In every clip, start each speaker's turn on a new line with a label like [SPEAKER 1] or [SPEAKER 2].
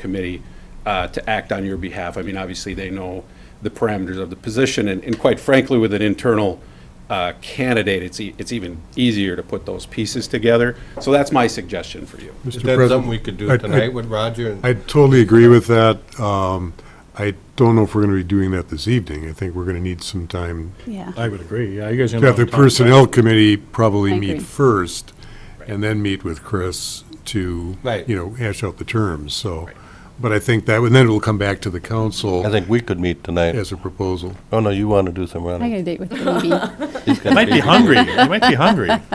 [SPEAKER 1] committee uh, to act on your behalf. I mean, obviously, they know the parameters of the position, and and quite frankly, with an internal uh, candidate, it's, e- it's even easier to put those pieces together. So that's my suggestion for you.
[SPEAKER 2] Mr.
[SPEAKER 3] Is that
[SPEAKER 2] President,
[SPEAKER 3] something we could
[SPEAKER 2] I-
[SPEAKER 3] do
[SPEAKER 2] I-
[SPEAKER 3] tonight with Roger? and-
[SPEAKER 2] I totally agree with that. Um, I don't know if we're going to be doing that this evening. I think we're going to need some time
[SPEAKER 4] Yeah,
[SPEAKER 5] I would agree, yeah, you guys.
[SPEAKER 2] to have the Personnel Committee probably
[SPEAKER 4] I
[SPEAKER 2] meet
[SPEAKER 4] agree.
[SPEAKER 2] first, and then meet with Chris to,
[SPEAKER 3] Right.
[SPEAKER 2] you know, hash out the terms, so. But I think that, and then it'll come back to the
[SPEAKER 6] I
[SPEAKER 2] council
[SPEAKER 6] think we could meet tonight.
[SPEAKER 2] as a proposal.
[SPEAKER 6] Oh, no, you want to do some
[SPEAKER 4] I got
[SPEAKER 6] running.
[SPEAKER 4] a date with the baby.
[SPEAKER 6] He's got a
[SPEAKER 5] Might be
[SPEAKER 6] baby.
[SPEAKER 5] hungry, you might be hungry.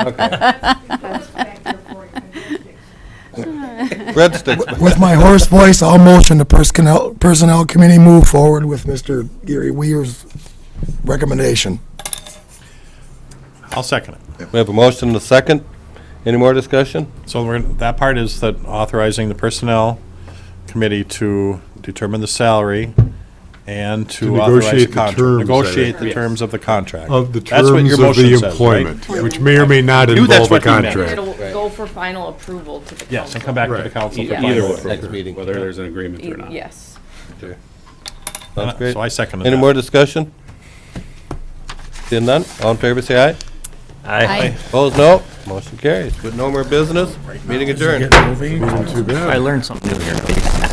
[SPEAKER 6] Breadsticks.
[SPEAKER 7] With my hoarse voice, I'll motion the personnel, personnel committee move forward with Mr. Gary Weir's recommendation.
[SPEAKER 5] I'll second it.
[SPEAKER 6] We have a motion and a second. Any more discussion?
[SPEAKER 5] So we're, that part is that authorizing the personnel committee to determine the salary and
[SPEAKER 2] To
[SPEAKER 5] to authorize
[SPEAKER 2] negotiate
[SPEAKER 5] the
[SPEAKER 2] the
[SPEAKER 5] contract.
[SPEAKER 2] terms, I
[SPEAKER 5] Negotiate
[SPEAKER 2] think.
[SPEAKER 5] the terms of the contract.
[SPEAKER 2] Of the
[SPEAKER 5] That's what
[SPEAKER 2] terms
[SPEAKER 5] your
[SPEAKER 2] of the
[SPEAKER 5] motion says, right?
[SPEAKER 2] employment, which may or may not
[SPEAKER 5] Knew that's
[SPEAKER 2] involve a
[SPEAKER 5] what he meant.
[SPEAKER 2] contract.
[SPEAKER 8] It'll go for final approval to the council.
[SPEAKER 5] Yes, and come back to the
[SPEAKER 2] Right.
[SPEAKER 5] council.
[SPEAKER 1] E-
[SPEAKER 5] for
[SPEAKER 1] Either
[SPEAKER 5] final-
[SPEAKER 1] way,
[SPEAKER 6] Next meeting.
[SPEAKER 1] whether there's an agreement or not.
[SPEAKER 8] Yes.
[SPEAKER 6] Sounds great.
[SPEAKER 5] So I seconded
[SPEAKER 6] Any
[SPEAKER 5] that.
[SPEAKER 6] more discussion? Seeing none, all in favor, say aye.
[SPEAKER 4] I
[SPEAKER 6] Opposed, no. Motion carries. With no more business, meeting adjourned.
[SPEAKER 2] Too bad.
[SPEAKER 9] I learned something new here.